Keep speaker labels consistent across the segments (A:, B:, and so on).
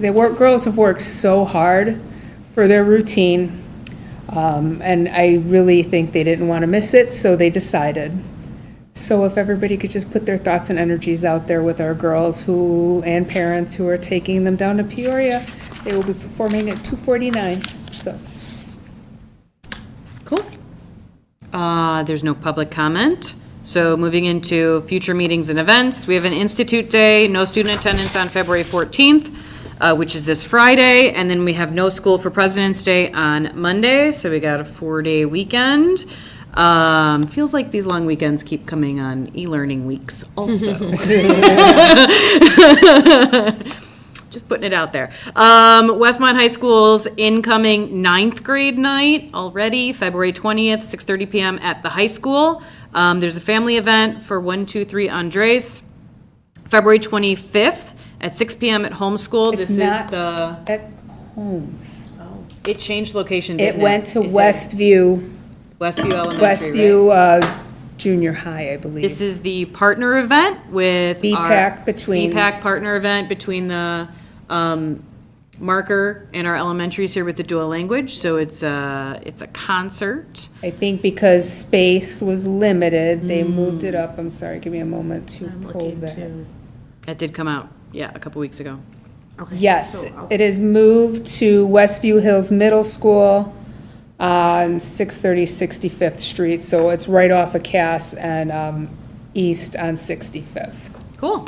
A: The work, girls have worked so hard for their routine, um, and I really think they didn't want to miss it, so they decided. So if everybody could just put their thoughts and energies out there with our girls who, and parents who are taking them down to Peoria, they will be performing at 249, so.
B: Cool. Uh, There's no public comment. So moving into future meetings and events, we have an Institute Day, no student attendance on February 14th, uh, which is this Friday, and then we have no school for President's Day on Monday, so we got a four-day weekend. Um, Feels like these long weekends keep coming on e-learning weeks also. Just putting it out there. Um, Westmont High School's incoming ninth grade night already, February 20th, 6:30 PM at the high school. Um, there's a family event for 123 Andres, February 25th at 6 PM at home school.
A: It's
B: This is
A: not-
B: the,
A: At Holmes.
B: it changed location,
A: It
B: didn't it?
A: went to
B: did.
A: Westview,
B: Westview Elementary, right?
A: Westview uh, Junior High, I believe.
B: This is the partner event with. our-
A: BPAC between-
B: BPAC partner event between the um, marker and our elementaries here with the dual language. So it's a, it's a concert.
A: I think because space was limited, they moved it up. I'm sorry, give me a moment to pull that.
B: That did come out, yeah, a couple weeks ago.
A: Yes, it is moved to Westview Hills Middle School on 630 65th Street, so it's right off of Cass and um, east on 65th.
B: Cool.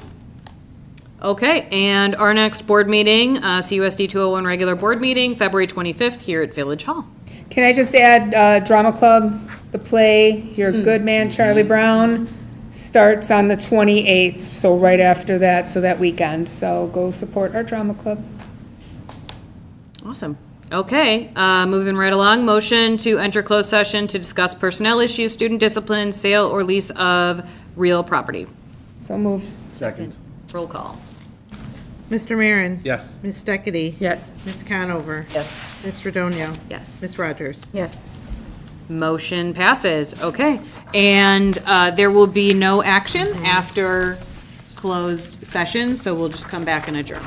B: Okay, and our next board meeting, uh, CUSD 201 regular board meeting, February 25th here at Village Hall.
A: Can I just add, uh, Drama Club, the play, Your Good Man Charlie Brown, starts on the 28th, so right after that, so that weekend. So go support our drama club.
B: Awesome. Okay, uh, moving right along, motion to enter closed session to discuss personnel issues, student discipline, sale or lease of real property.
A: So moved.
C: Second.
B: Roll call.
D: Mr. Marin.
C: Yes.
D: Ms. Steckity.
A: Yes.
D: Ms. Conover.
B: Yes.
D: Ms. Redonio.
B: Yes.
D: Ms. Rogers.
B: Motion passes, okay. And uh, there will be no action after closed session, so we'll just come back and adjourn.